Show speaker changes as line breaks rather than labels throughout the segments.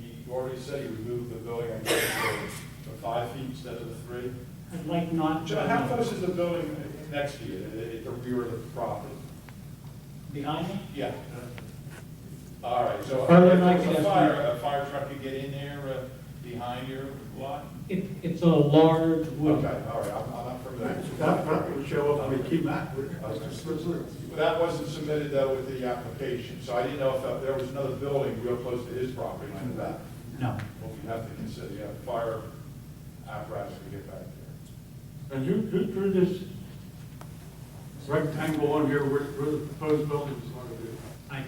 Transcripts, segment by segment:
You already said you removed the building, I guess, to five feet instead of the three.
I'd like not.
Joe, how close is the building next to you, at the rear of the property?
Behind me?
Yeah. All right, so if
Further than
there
I
was
can
a
estimate.
fire, a fire truck could get in there uh, behind your lot?
It, it's a large
Okay, all
wood.
right, I'm I'm not familiar. with
That that would show up, we keep that, would it?
Okay. But That wasn't submitted though with the application, so I didn't know if that- there was another building real close to his property like that.
No.
Well, you have to consider, you have fire apparatus to get back there.
And who, who drew this rectangle on here where, where the proposed building is going to be?
I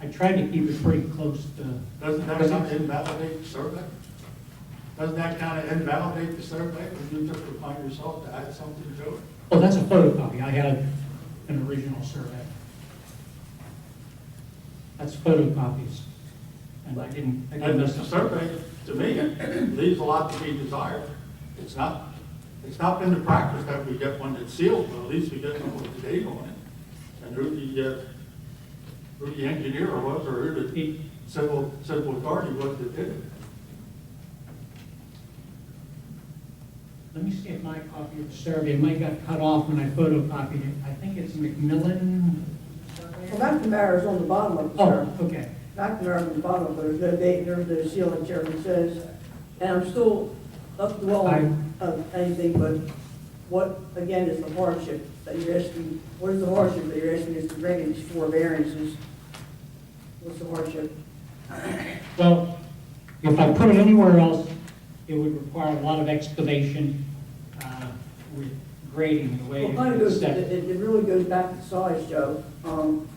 I tried to keep it pretty close to.
Doesn't that kind of invalidate the survey? Doesn't that kind of invalidate the survey when you took it upon yourself to add something to it?
Oh, that's a photocopy. I had an original survey. That's photocopies. And I didn't. I didn't
And
mess
the
up.
survey, to me, leaves a lot to be desired. It's not, it's not been the practice that we get one that's sealed, but at least we get one with the date on it. And who the, uh, who the engineer was, or who the civil, civil authority was that did it.
Let me see if my copy of the survey, mine got cut off when I photocopied it. I think it's McMillan.
Well, McNamara's on the bottom of the
Oh,
chart.
okay.
McNamara's on the bottom, but there's no date, there's no ceiling, Chairman says. And I'm still up to all of anything, but what, again, is the hardship that you're asking? What is the hardship that you're asking us to bring in these four variances? What's the hardship?
Well, if I put it anywhere else, it would require a lot of excavation uh, with grading the way
Well, kind of
it's
goes,
set.
it, it it really goes back to size, Joe. Um,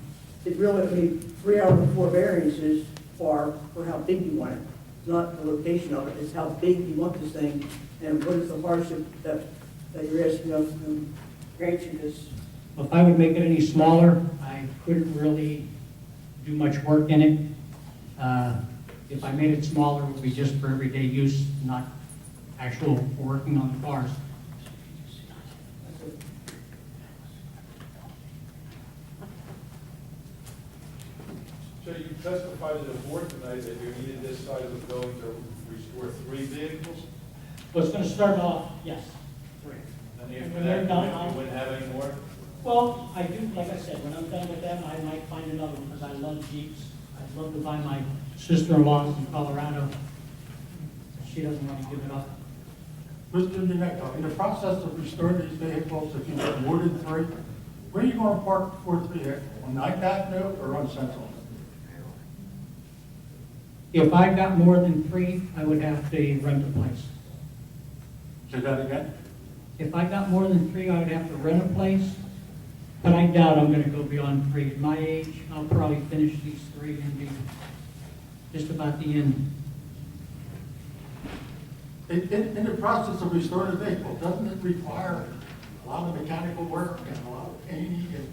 it really, I mean, three out of the four variances are for how big you want it. It's not the location of it, it's how big you want this thing, and what is the hardship that, that you're asking of, um, grant you this.
Well, If I would make it any smaller, I couldn't really do much work in it. Uh, If I made it smaller, it would be just for everyday use, not actual working on the cars.
So you testified to the board tonight that you needed this side of the building to restore three vehicles?
Well, it's going to start off, yes, correct.
And
And
if
when they're
that,
done,
you
I'll-
wouldn't have any more?
Well, I do, like I said, when I'm done with them, I might find another one, because I love Jeeps. I'd love to buy my sister-in-law's in Colorado. She doesn't want to give it up.
Mr. DeNecco, in the process of restoring these vehicles, if you get more than three, where are you going to park the fourth vehicle? On Ninth Avenue or on Central?
If I got more than three, I would have to rent a place.
Say that again?
If I got more than three, I would have to rent a place, but I doubt I'm gonna go beyond three. At my age, I'll probably finish these three and be just about the end.
In, in, in the process of restoring the vehicle, doesn't it require a lot of mechanical work and a lot of painting and?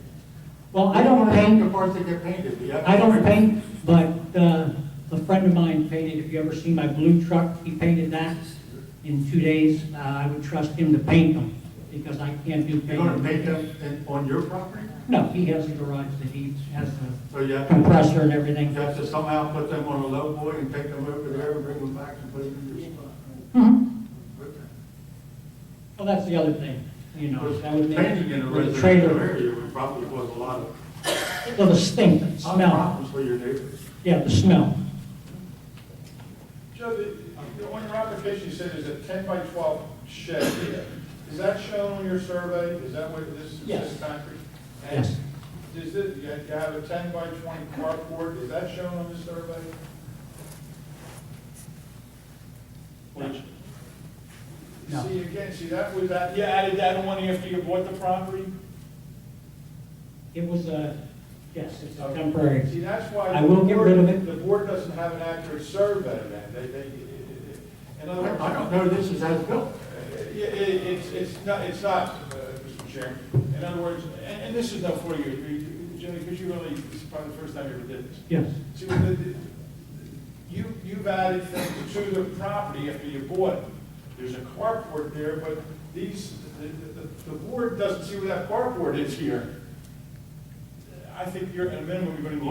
Well, I don't
The
paint,
parts that get painted, you have to-
I don't paint, but, uh, a friend of mine painted, if you ever seen my blue truck, he painted that in two days. Uh, I would trust him to paint them, because I can't do
You're going to
painting.
paint them in, on your property?
No, he has a garage that he has a
So you have, to-
compressor and
you
everything.
have to somehow put them on a low boy and take them over there and bring them back and put them in your spot?
Mhm.
Okay.
Well, that's the other thing, you know, that would make.
Painting in a
with the
residential
trailer-
area would probably cause a lot of
Well, the stink, the smell,
problems for your neighbors.
yeah, the smell.
Joe, the- you know, on your application, you said there's a ten by twelve shed here. Is that shown on your survey? Is that what this is,
Yes.
this concrete?
Yes.
And Is it, you you have a ten by twenty carport, is that shown on the survey? Which-
No.
See, again, see, that was that, you added that one after you bought the property?
It was a, yes, it's a
Okay. See,
temporary.
that's why.
I will get rid of it.
The board doesn't have an accurate survey then, they, they, in other words.
I don't know this is as built.
Yeah, it- It's, it's not, it's not, uh, Mr. Chairman. In other words, and, and this is not for you, you- you- Jimmy, because you really, this is probably the first time you ever did this.
Yes,
See, the- the- you, you've added things to the property after you bought it. There's a carport there, but these, the, the, the board doesn't see where that carport is here. I think you're, at a minimum, you're gonna